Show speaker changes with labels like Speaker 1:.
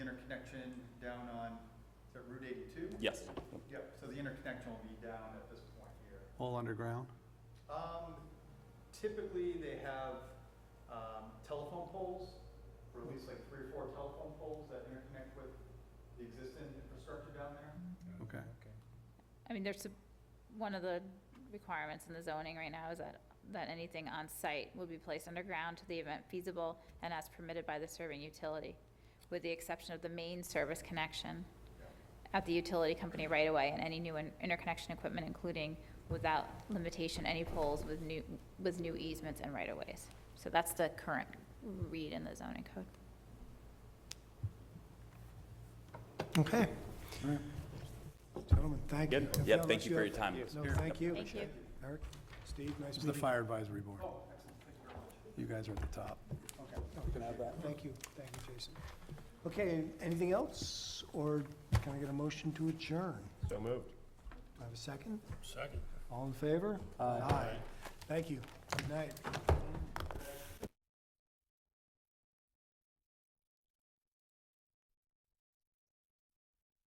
Speaker 1: interconnection down on, is that Route eighty-two?
Speaker 2: Yes.
Speaker 1: Yep, so the interconnection will be down at this point here.
Speaker 3: All underground?
Speaker 1: Um, typically, they have, um, telephone poles, or at least like three or four telephone poles that interconnect with the existing infrastructure down there.
Speaker 3: Okay.
Speaker 4: I mean, there's, a- one of the requirements in the zoning right now is that, that anything on site will be placed underground to the event feasible and as permitted by the serving utility, with the exception of the main service connection at the utility company right away and any new in- interconnection equipment, including without limitation, any poles with new, with new easements and right of ways. So that's the current read in the zoning code.
Speaker 5: Okay. Gentlemen, thank you.
Speaker 2: Good. Yeah, thank you for your time.
Speaker 5: No, thank you.
Speaker 4: Thank you.
Speaker 5: Eric, Steve, nice
Speaker 3: This is
Speaker 5: meeting
Speaker 3: the
Speaker 5: you. Oh,
Speaker 3: fire advisory board. You guys are at the top.
Speaker 5: Thank you, thank you, Jason. Okay, anything else, or can I get a motion to adjourn?
Speaker 2: So moved.
Speaker 5: Do I have a second? Second. All in favor? Aye. Thank you, good night.